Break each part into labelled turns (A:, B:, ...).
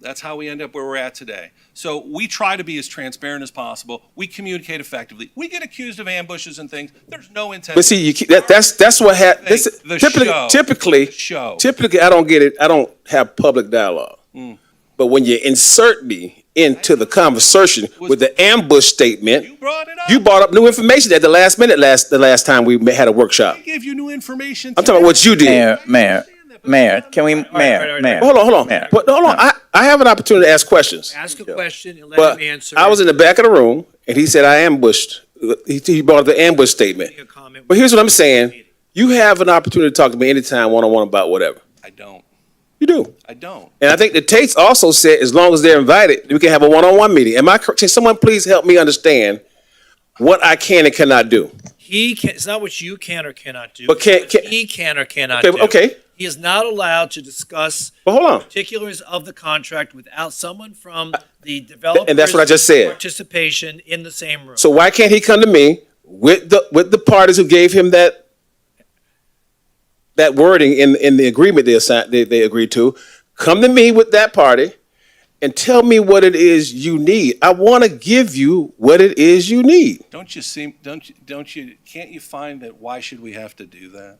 A: That's how we end up where we're at today. So we try to be as transparent as possible. We communicate effectively. We get accused of ambushes and things. There's no intent.
B: But see, you, keep- that, that's, that's what hap, this,
A: The
B: typically,
A: show.
B: typically,
A: The show.
B: typically, I don't get it, I don't have public dialogue.
A: Mm.
B: But when you insert me into the conversation with the ambush
A: You
B: statement,
A: brought it up.
B: you brought up new information at the last minute, last, the last time we ma- had a workshop.
A: I gave you new information.
B: I'm talking about what you did.
C: Mayor, mayor, mayor, can we, mayor, mayor?
B: Hold on, hold on,
C: Mayor.
B: but, hold on, I, I have an opportunity to ask questions.
D: Ask a question and let
B: But
D: him answer.
B: I was in the back of the room and he said, I ambushed, he, he brought up the ambush statement.
D: Make a comment.
B: But here's what I'm saying, you have an opportunity to talk to me anytime, one-on-one about whatever.
A: I don't.
B: You do.
A: I don't.
B: And I think the Tates also said, as long as they're invited, we can have a one-on-one meeting. Am I correct? Can someone please help me understand what I can and cannot do?
D: He can, it's not what you can or cannot do.
B: But can-
D: It's what
B: can-
D: He can or cannot
B: Okay,
D: do.
B: okay.
D: He is not allowed to discuss
B: But hold on.
D: particulars of the contract without someone from the developer.
B: that's what I just said.
D: Participation in the same room.
B: So why can't he come to me with the, with the parties who gave him that, that wording in, in the agreement they assigned, they, they agreed to? Come to me with that party and tell me what it is you need. I want to give you what it is you need.
A: Don't you seem, don't, you? don't you, can't you find that why should we have to do that?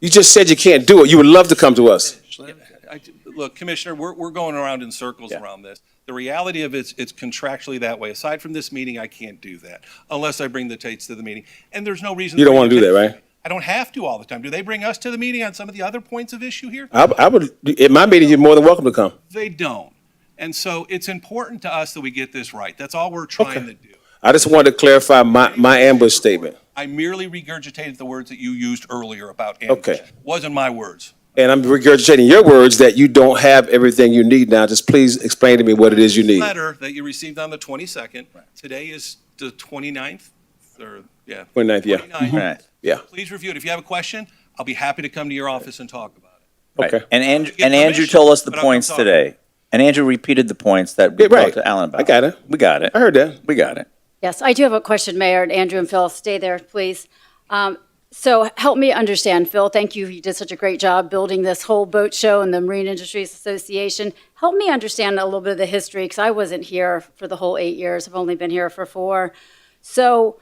B: You just said you can't do it. You would love to come to us.
A: I- Look, Commissioner, we're, we're going around in circles around this. The reality of it's, it's contractually that way. Aside from this meeting, I can't do that unless I bring the Tates to the meeting. And there's no reason.
B: You don't
A: bring
B: wanna
A: the
B: do that,
A: Tates.
B: right?
A: I don't have to all the time. Do they bring us to the meeting on some of the other points of issue here?
B: I, I would, in my meeting, you're more than welcome to come.
A: They don't. And so it's important to us that we get this right. That's all we're trying to do.
B: I just wanted to clarify my, my ambush statement,
A: I merely regurgitated the words that you used earlier about ambush.
B: Okay.
A: Wasn't my words.
B: and I'm regurgitating your words that you don't have everything you need now. Just please explain to me what it is you need.
A: Letter that you received on the 22nd. Today is the 29th, or, yeah.
B: 29th, yeah.
E: Mm-hmm.
A: 29th.
C: Right,
B: Yeah,
A: Please review it. If you have a question, I'll be happy to come to your office and talk about it.
C: right.
B: okay.
C: And Andrew,
A: Get
C: and Andrew
A: permission,
C: told us the
A: but I'm
C: points
A: sorry.
C: today. And Andrew repeated the points that we
B: Yeah, right.
C: talked to Alan about.
B: I got it.
C: We got it.
B: I heard that.
C: We got it.
F: Yes, I do have a question, Mayor, and Andrew and Phil, stay there, please. Um, So help me understand, Phil, thank you, you did such a great job building this whole boat show and the Marine Industries Association. Help me understand a little bit of the history, because I wasn't here for the whole eight years, I've only been here for four. So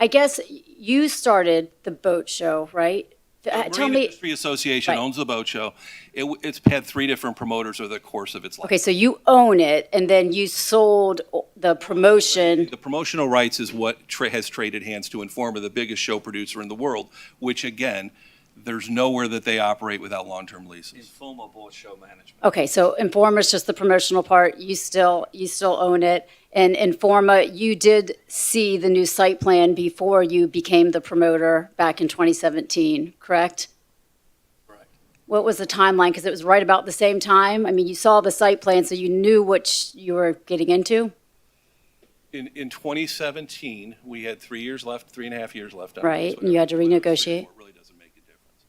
F: I guess you started the boat show, right? Uh, Tell
A: Marine
F: me,
A: Industry Association
F: Right.
A: owns the boat show. It, w- it's had three different promoters over the course of its life.
F: okay, so you own it, and then you sold the promotion.
A: The promotional rights is what tra- has traded hands to Informa, the biggest show producer in the world, which again, there's nowhere that they operate without long-term leases.
E: Informal board show management.
F: Okay, so Informa's just the promotional part, you still, you still own it. And Informa, you did see the new site plan before you became the promoter back in 2017, correct?
A: Correct.
F: What was the timeline? Because it was right about the same time. I mean, you saw the site plan, so you knew what sh- you were getting into,
A: In, in 2017, we had three years left, three and a half years left. on it.
F: Right,
A: So
F: and you had to
A: whatever it was, three or
F: renegotiate.
A: four, it Really doesn't make a difference.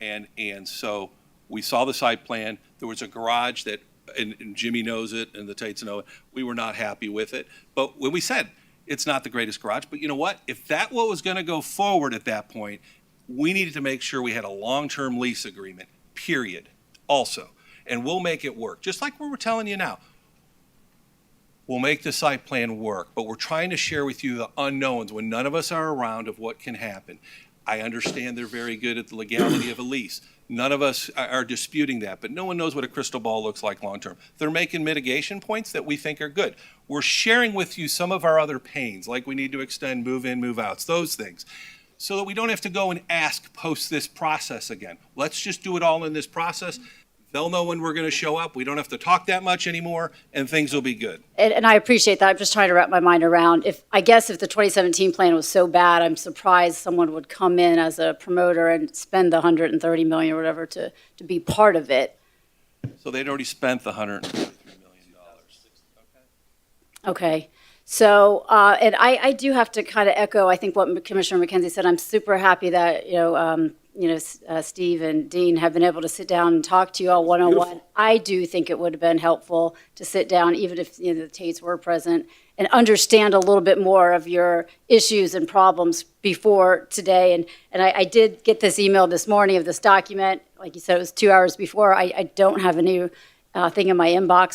A: And, and so we saw the site plan. There was a garage that, and and Jimmy knows it and the Tates know it. We were not happy with it. But when we said, it's not the greatest garage, but you know what? If that what was going to go forward at that point, we needed to make sure we had a long-term lease agreement, period, also. And we'll make it work, just like we were telling you now we'll make the site plan work, but we're trying to share with you the unknowns when none of us are around of what can happen. I understand they're very good at the legality of a lease. None of us are- are disputing that, but no one knows what a crystal ball looks like long-term. They're making mitigation points that we think are good. We're sharing with you some of our other pains, like we need to extend move-in, move-outs, those things, so that we don't have to go and ask post this process again. Let's just do it all in this process. They'll know when we're going to show up. We don't have to talk that much anymore, and things will be good.
F: and, and I appreciate that. I'm just trying to wrap my mind around if, I guess if the 2017 plan was so bad, I'm surprised someone would come in as a promoter and spend the 130 million or whatever to, to be part of it.
A: So they'd already spent the hundred and thirty-three million dollars.
F: Okay, so, uh, and I, I do have to kind of echo, I think what Commissioner McKenzie said, I'm super happy that, you know, um, you know, S- uh, Steve and Dean have been able to sit down and talk to you all one-on-one. I do think it would have been helpful to sit down, even if, you know, the Tates were present, and understand a little bit more of your issues and problems before today. And, and I, I did get this email this morning of this document, like you said, it was two hours before. I, I don't have a new, uh, thing in my inbox